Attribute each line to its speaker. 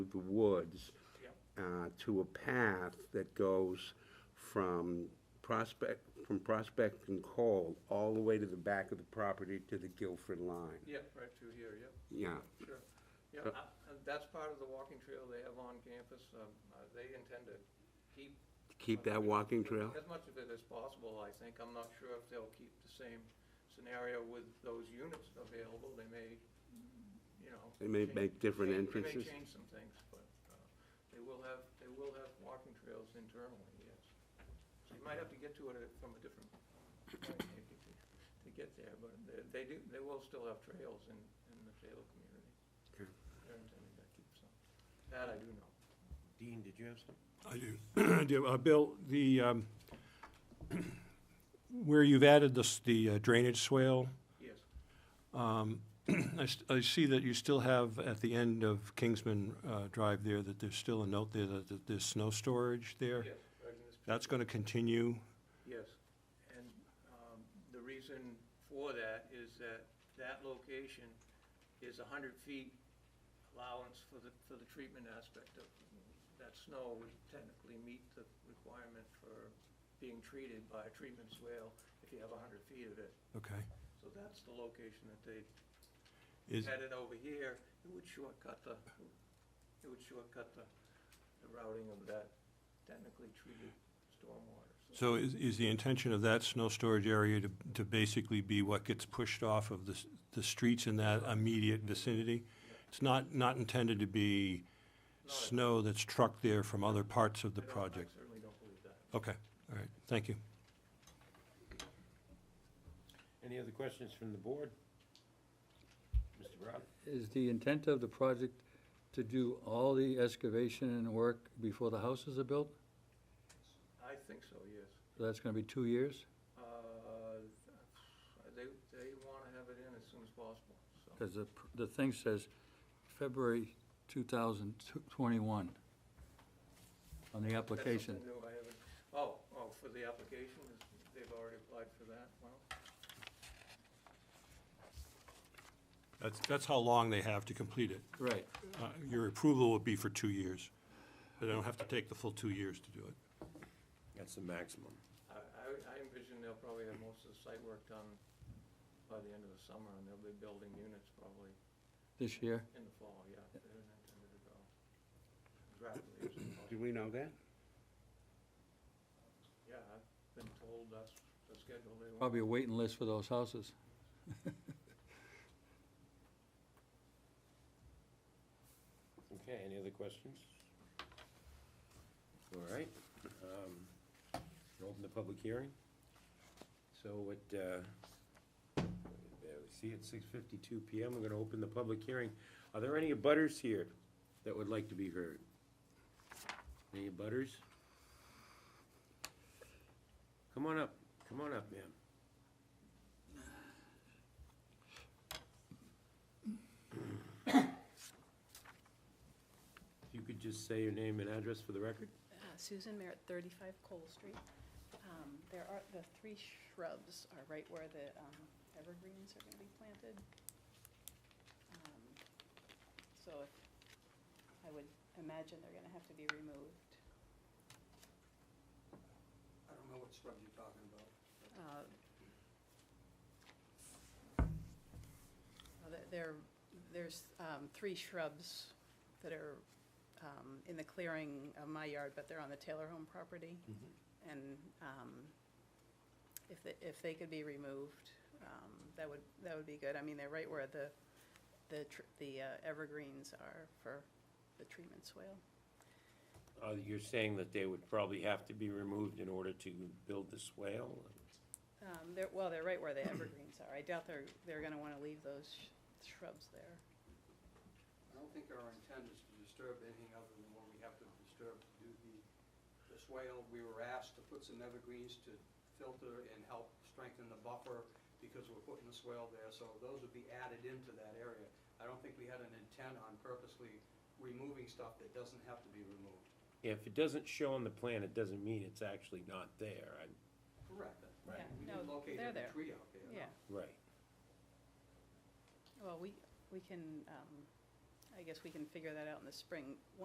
Speaker 1: the woods
Speaker 2: Yep.
Speaker 1: uh, to a path that goes from Prospect, from Prospect and Cole all the way to the back of the property to the Guilford line.
Speaker 2: Yep, right through here, yep,
Speaker 1: Yeah,
Speaker 2: sure. Yeah,
Speaker 1: So-
Speaker 2: I- and that's part of the walking trail they have on campus. Um, uh, They intend to keep.
Speaker 1: keep that walking trail?
Speaker 2: As much of it as possible, I think. I'm not sure if they'll keep the same scenario with those units available. They may, you know.
Speaker 1: They may
Speaker 2: change-
Speaker 1: make different
Speaker 2: change- They
Speaker 1: entrances.
Speaker 2: may change some things, but uh, they will have, they will have walking trails internally, yes. So you might have to get to it from a different point maybe to to get there, but they- they do, they will still have trails in, in the Taylor community.
Speaker 1: Okay.
Speaker 2: They're intending to keep some. That I do know.
Speaker 3: Dean, did you have something?
Speaker 4: I do, I do. Uh, Bill, the, um, where you've added this, the uh, drainage swale,
Speaker 2: Yes,
Speaker 4: um, I s- I see that you still have at the end of Kingsman uh, Drive there, that there's still a note there that that there's snow storage there.
Speaker 2: yes. right in this
Speaker 4: That's going to continue.
Speaker 2: Yes, and um, the reason for that is that that location is 100 feet allowance for the, for the treatment aspect of that snow would technically meet the requirement for being treated by a treatment swale if you have 100 feet of it.
Speaker 4: Okay.
Speaker 2: So that's the location that they
Speaker 4: Is,
Speaker 2: had it over here, it would shortcut the, it would shortcut the the routing of that technically treated stormwater.
Speaker 4: so is, is the intention of that snow storage area to, to basically be what gets pushed off of the, s- the streets in that immediate vicinity? It's not, not intended to be
Speaker 2: Not a-
Speaker 4: snow that's trucked there from other parts of the
Speaker 2: I don't-
Speaker 4: project?
Speaker 2: I certainly don't believe that.
Speaker 4: Okay, all right, thank you.
Speaker 3: Any other questions from the board? Mr. Brown?
Speaker 5: Is the intent of the project to do all the excavation and work before the houses are built?
Speaker 2: I think so, yes.
Speaker 5: So that's gonna be two years?
Speaker 2: Uh, They, they want to have it in as soon as possible, so.
Speaker 5: Because the, pr- the thing says February two thousand twenty-one on the
Speaker 2: That's
Speaker 5: application.
Speaker 2: something new I haven't, oh, oh, for the application, is- they've already applied for that, well,
Speaker 4: That's, that's how long they have to complete it.
Speaker 5: Right.
Speaker 4: Uh, Your approval would be for two years, but they don't have to take the full two years to do it.
Speaker 3: That's the maximum.
Speaker 2: I, I- I envision they'll probably have most of the site work done by the end of the summer, and they'll be building units probably
Speaker 5: This year?
Speaker 2: in the fall, yeah. They're intended to go as rapidly
Speaker 1: Do
Speaker 2: as possible.
Speaker 1: we know that?
Speaker 2: Yeah, I've been told that's the schedule they want.
Speaker 5: Probably a waiting list for those houses.
Speaker 3: Okay, any other questions? All right. um, we'll Open the public hearing. So at, uh, there we see, at six fifty-two PM, we're gonna open the public hearing. Are there any abutters here that would like to be heard? Any abutters? Come on up, come on up, ma'am. If you could just say your name and address for the record?
Speaker 6: Uh, Susan Merritt, 35 Cole Street. Um, There are, the three shrubs are right where the um, evergreens are going to be planted. Um, So if- I would imagine they're going to have to be removed.
Speaker 7: I don't know what scrub you're talking about.
Speaker 6: Uh, there- There, there's um, three shrubs that are um, in the clearing of my yard, but they're on the Taylor Home property.
Speaker 7: Mm-hmm.
Speaker 6: And um, if, they- if they could be removed, um, that would, that would be good. I mean, they're right where the, the, tr- the uh, evergreens are for the treatment swale.
Speaker 3: Uh, You're saying that they would probably have to be removed in order to build the swale?
Speaker 6: Um, They're, well, they're right where the evergreens are. I doubt they're, they're going to want to leave those sh- shrubs there.
Speaker 7: I don't think our intent is to disturb anything other than what we have to disturb to do the, the swale. We were asked to put some evergreens to filter and help strengthen the buffer because we're putting the swale there, so those would be added into that area. I don't think we had an intent on purposely removing stuff that doesn't have to be removed.
Speaker 3: If it doesn't show on the plan, it doesn't mean it's actually not there. I-
Speaker 7: Correct.
Speaker 6: Right.
Speaker 7: We
Speaker 6: Yeah,
Speaker 7: didn't
Speaker 6: no,
Speaker 7: locate
Speaker 6: they're
Speaker 7: every
Speaker 6: there.
Speaker 7: tree out there. no.
Speaker 6: Yeah.
Speaker 3: Right.
Speaker 6: Well, we, we can, um, I guess we can figure that out in the spring.